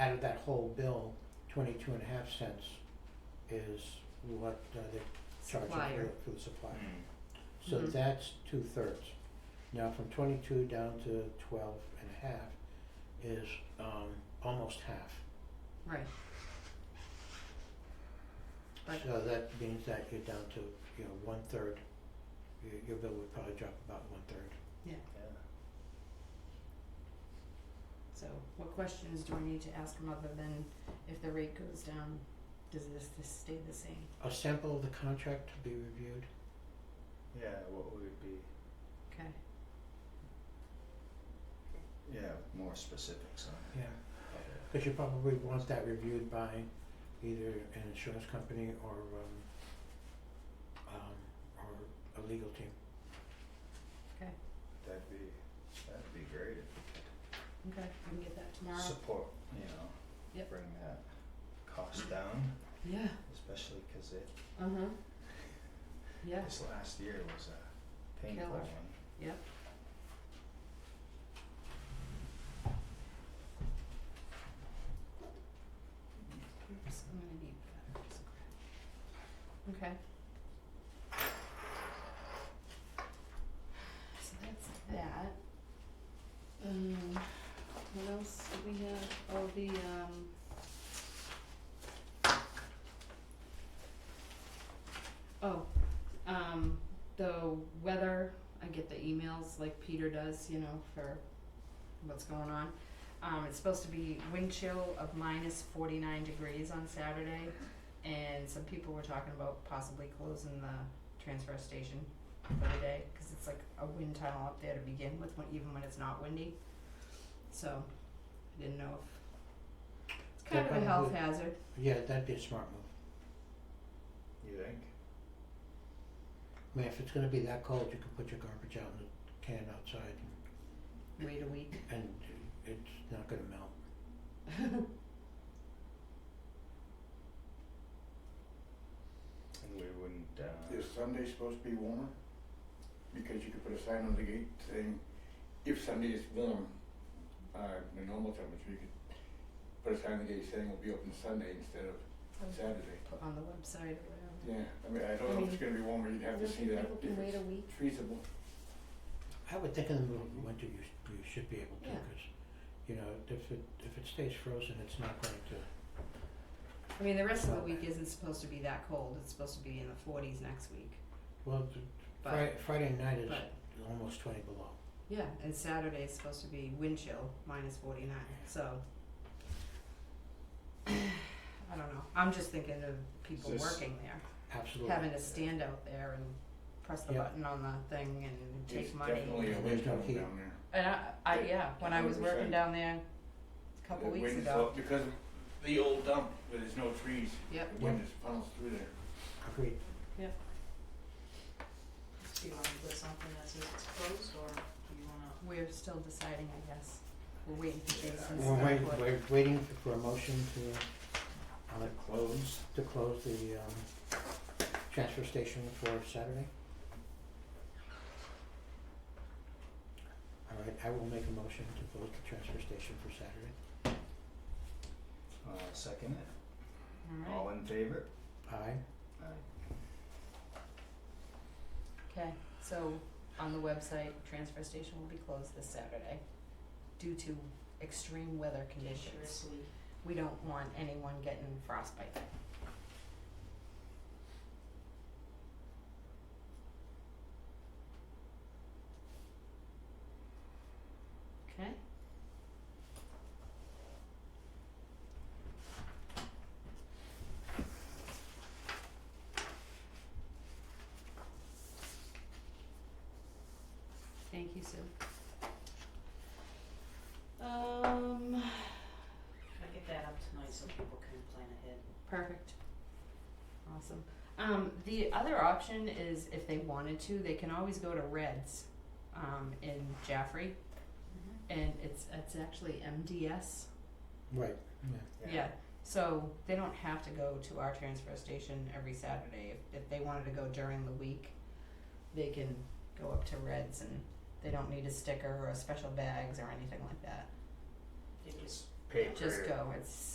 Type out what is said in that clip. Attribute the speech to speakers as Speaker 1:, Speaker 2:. Speaker 1: out of that whole bill, twenty-two and a half cents is what uh, they're charging
Speaker 2: Supplier.
Speaker 1: for, for the supplier.
Speaker 3: Mm.
Speaker 1: So
Speaker 2: Mhm.
Speaker 1: that's two-thirds. Now, from twenty-two down to twelve and a half is, um, almost half.
Speaker 2: Right. But-
Speaker 1: So that means that you're down to, you know, one-third. Your, your bill would probably drop about one-third.
Speaker 3: Yeah.
Speaker 2: So what questions do I need to ask them other than if the rate goes down, does this, this stay the same?
Speaker 1: A sample of the contract to be reviewed.
Speaker 3: Yeah, what would be,
Speaker 2: Okay,
Speaker 3: yeah, more specifics on
Speaker 1: Yeah.
Speaker 3: it.
Speaker 1: Cause you probably want that reviewed by either an insurance company or um um or a legal team.
Speaker 2: okay,
Speaker 3: That'd be, that'd be great if we could
Speaker 2: okay, I can get that tomorrow.
Speaker 3: support, you know,
Speaker 2: Yep.
Speaker 3: bring that cost down,
Speaker 2: Yeah,
Speaker 3: especially 'cause it,
Speaker 2: uh-huh. Yeah,
Speaker 3: this last year was a painful
Speaker 2: Killer.
Speaker 3: one.
Speaker 2: yep. Oops, I'm gonna need that, just grab. Okay. So that's that. Um, what else do we have? Oh, the um. Oh, um, the weather, I get the emails like Peter does, you know, for what's going on. Um, it's supposed to be wind chill of minus forty-nine degrees on Saturday, and some people were talking about possibly closing the transfer station for the day, cause it's like a wind tunnel up there to begin with, when, even when it's not windy. So, I didn't know if, it's kind of a health
Speaker 1: Definitely.
Speaker 2: hazard,
Speaker 1: Yeah, that'd be a smart move.
Speaker 3: You think?
Speaker 1: I mean, if it's gonna be that cold, you can put your garbage out in the can outside
Speaker 2: wait a week.
Speaker 1: and it's not gonna melt.
Speaker 3: And we wouldn't, uh,
Speaker 4: Is Sunday supposed to be warmer? Because you could put a sign on the gate saying, if Sunday is warm, uh, the normal temperature, you could put a sign on the gate saying we'll be open Sunday instead of Saturday.
Speaker 2: Put on the website or whatever.
Speaker 4: Yeah, I mean, I don't know if it's gonna be warmer, you'd have to see that
Speaker 2: People can
Speaker 4: if
Speaker 2: wait a
Speaker 4: it's
Speaker 2: week.
Speaker 4: feasible.
Speaker 1: I would think in the middle of the winter, you sh- you should be able to,
Speaker 2: Yeah.
Speaker 1: 'cause, you know, if it if it stays frozen, it's not going to,
Speaker 2: I mean, the rest of the week isn't supposed to be that cold. It's supposed to be in the forties next week.
Speaker 1: well, th-
Speaker 2: But-
Speaker 1: Fri- Friday night is
Speaker 2: But
Speaker 1: almost twenty below.
Speaker 2: yeah, and Saturday is supposed to be wind chill minus forty nine. So I don't know. I'm just thinking of people
Speaker 3: Is this-
Speaker 2: working there,
Speaker 1: Absolutely.
Speaker 2: having to stand out there and press the
Speaker 1: Yeah.
Speaker 2: button on the thing and
Speaker 4: It's
Speaker 2: take money.
Speaker 4: definitely a
Speaker 1: There's
Speaker 4: wind
Speaker 1: no
Speaker 4: tunnel
Speaker 1: heat.
Speaker 4: down there.
Speaker 2: And I, I yeah, when I was working
Speaker 4: 100%.
Speaker 2: down there a couple
Speaker 4: The
Speaker 2: weeks
Speaker 4: wind
Speaker 2: ago.
Speaker 4: flow- Because of the old dump, where there's no trees,
Speaker 2: Yep.
Speaker 4: the wind just funnels through there.
Speaker 1: Agreed.
Speaker 5: Do you wanna put something that says it's closed, or do you wanna?
Speaker 2: We're still deciding, I guess. We're waiting for
Speaker 3: Yeah.
Speaker 2: Jason's
Speaker 1: We're waiting,
Speaker 2: input.
Speaker 1: we're waiting for a motion to, uh, close, to close the, um, transfer station for Saturday. All right, I will make a motion to close the transfer station for Saturday.
Speaker 3: uh, second it.
Speaker 2: All right.
Speaker 3: All in favor?
Speaker 1: Aye,
Speaker 3: Aye.
Speaker 2: Okay, so on the website, transfer station will be closed this Saturday due to extreme weather conditions.
Speaker 5: Seriously.
Speaker 2: We don't want anyone getting frostbite. Okay. Thank you, Sue. Um,
Speaker 5: Can I get that up tonight so people can plan ahead?
Speaker 2: Perfect. Awesome. Um, the other option is if they wanted to, they can always go to Reds um, in Jaffrey,
Speaker 5: Mm-hmm.
Speaker 2: and it's it's actually MDS.
Speaker 1: right, yeah.
Speaker 2: So they don't have to go to our transfer station every Saturday. If, if they wanted to go during the week, they can go up to Reds, and they don't need a sticker or special bags or anything like that.
Speaker 5: They just
Speaker 3: paper.
Speaker 2: just go, it's